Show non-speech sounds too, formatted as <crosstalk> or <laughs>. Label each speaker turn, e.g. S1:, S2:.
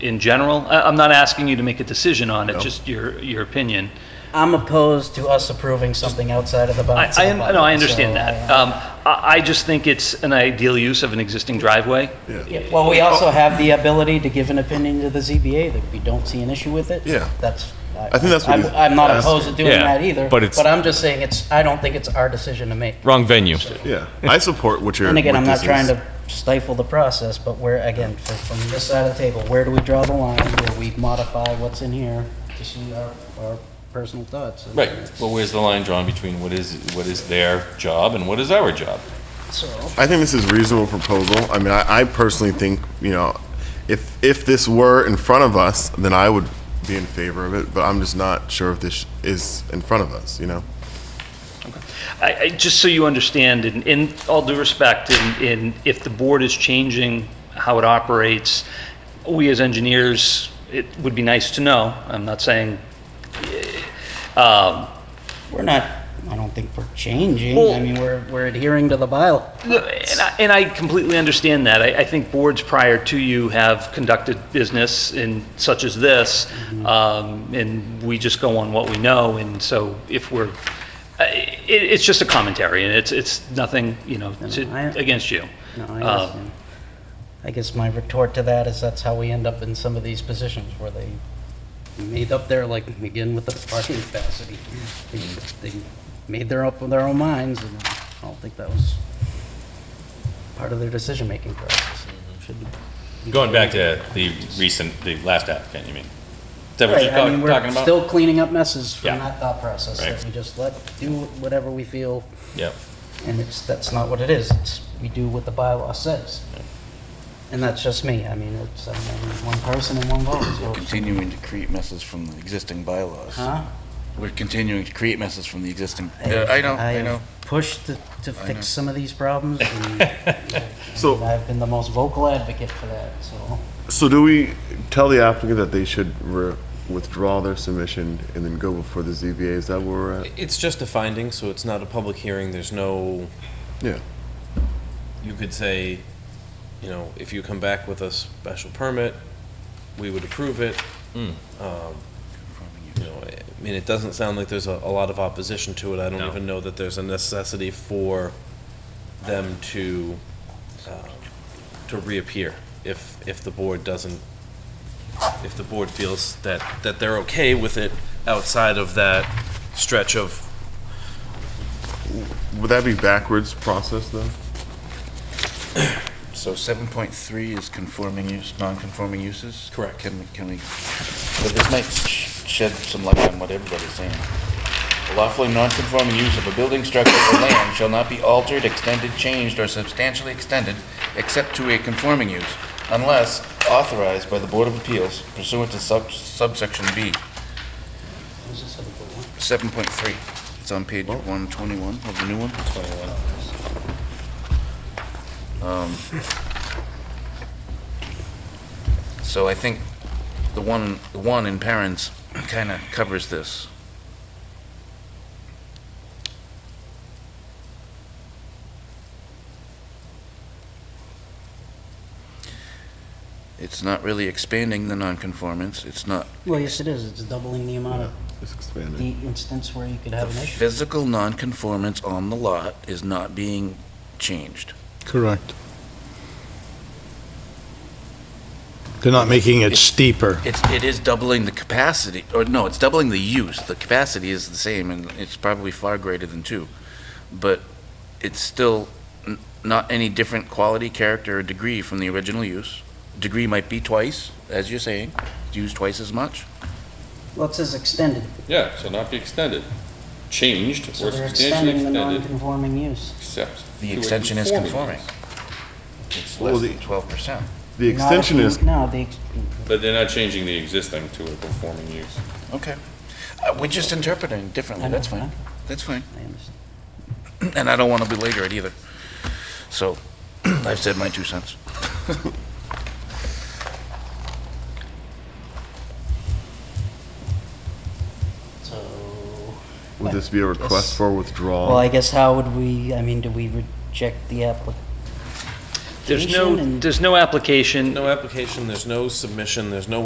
S1: in general? I- I'm not asking you to make a decision on it, just your, your opinion.
S2: I'm opposed to us approving something outside of the bounds.
S1: I, I,
S2: of the
S1: un- no, I
S2: bylaw,
S1: understand
S2: so
S1: that.
S2: I-
S1: Um, I, I just think it's an ideal use of an existing driveway.
S2: Yeah, Well, we also have the ability to give an opinion to the ZBA that we don't see an issue with it.
S3: Yeah.
S2: That's.
S3: I think that's what
S2: I'm-
S3: he's
S2: I'm not
S3: asking.
S2: opposed to doing
S4: Yeah,
S2: that either.
S4: but it's-
S2: But I'm just saying it's, I don't think it's our decision to make.
S4: Wrong venue.
S3: Yeah, I support what you're.
S2: And again,
S3: what
S2: I'm not
S3: this
S2: trying
S3: is.
S2: to stifle the process, but where, again, fr- from this side of the table, where do we draw the line? Where we modify what's in here to suit our, our personal thoughts? And
S5: Right, well, where's the line drawn between what is, what is their job and what is our job?
S2: So,
S3: I think this is a reasonable proposal. I mean, I, I personally think, you know, if, if this were in front of us, then I would be in favor of it, but I'm just not sure if this is in front of us, you know?
S1: I, I, just so you understand, in, in all due respect, in, in, if the board is changing how it operates, we as engineers, it would be nice to know. I'm not saying, um,
S2: we're not, I don't think we're changing.
S1: Well-
S2: I mean, we're, we're adhering to the bylaw.
S1: No, And I, and I completely understand that. I, I think boards prior to you have conducted business in such as this, um, and we just go on what we know, and so if we're, I- it, it's just a commentary, and it's, it's nothing, you know, to-
S2: I-
S1: against you.
S2: No,
S1: Um,
S2: I understand. I guess my retort to that is that's how we end up in some of these positions where they made up their, like, begin with the parking capacity. They they made their up their own minds, and I don't think that was part of their decision-making process. Should-
S5: Mm-hmm. Going back to the recent, the last applicant, you mean? Is that what
S2: Right,
S5: you're
S2: I mean,
S5: talking
S2: we're
S5: about?
S2: still cleaning up messes
S5: Yeah.
S2: from that thought process, that
S5: Right.
S2: we just let, do whatever we feel,
S5: Yep.
S2: and it's, that's not what it is. It's, we do what the bylaw says. And that's just me. I mean, it's, I'm only one person and one vote, so-
S6: We're continuing to create messes from the existing bylaws.
S2: Huh?
S6: We're continuing to create messes from the existing. Yeah, I know, I
S2: have
S6: know.
S2: Pushed to, to
S6: I know.
S2: fix some of these problems,
S6: <laughs>
S2: and
S3: So,
S2: I've been the most vocal advocate for that, so.
S3: so do we tell the applicant that they should re- withdraw their submission and then go before the ZBA? Is that where we're at?
S7: It's just a finding, so it's not a public hearing. There's no,
S3: Yeah.
S7: you could say, you know, if you come back with a special permit, we would approve it.
S5: Mm.
S7: Um, You know, I mean, it doesn't sound like there's a, a lot of opposition to it. I don't
S5: No.
S7: even know that there's a necessity for them to, uh, to reappear if, if the board doesn't, if the board feels that, that they're okay with it outside of that stretch of
S3: Would that be backwards process though?
S6: So seven point three is conforming use, non-conforming uses?
S7: Correct.
S6: Can we, can we, but this might sh- shed some light on what everybody's saying. The Lawfully non-conforming use of a building structure or land shall not be altered, extended, changed, or substantially extended except to a conforming use unless authorized by the Board of Appeals pursuant to sub- subsection B. Seven point three. It's on page one twenty-one of the new one. Um, So I think the one, the one in parents kind of covers this. It's not really expanding the nonconformance. It's not
S2: Well, yes, it is. It's doubling the amount of
S3: It's expanded.
S2: the instance where you could
S6: The
S2: have an issue.
S6: physical nonconformance on the lot is not being changed.
S8: Correct. They're not making it steeper.
S6: It's, it is doubling the capacity, or no, it's doubling the use. The capacity is the same, and it's probably far greater than two. But it's still n- not any different quality, character, or degree from the original use. Degree might be twice, as you're saying, used twice as much.
S2: Well, it says extended,
S5: Yeah, shall not be extended, changed
S2: so they're extending the non-conforming use.
S5: except.
S6: The extension is conforming. It's
S3: Well,
S6: less
S3: the-
S6: than twelve percent.
S3: The
S2: Not if
S3: extension
S2: you-
S3: is,
S2: No, the, ex-
S5: But they're not changing the existing to a conforming use.
S6: Okay. Uh, We're just interpreting differently, that's
S2: I know,
S6: fine. That's fine.
S2: I understand.
S6: and I don't want to belabor it either. So <clears throat> I've said my two cents.
S2: So.
S3: would this be a request for withdrawal?
S2: Well, I guess how would we, I mean, do we reject the applic,
S1: There's
S2: application
S1: no,
S2: and-
S1: there's no application.
S7: No application, there's no submission, there's no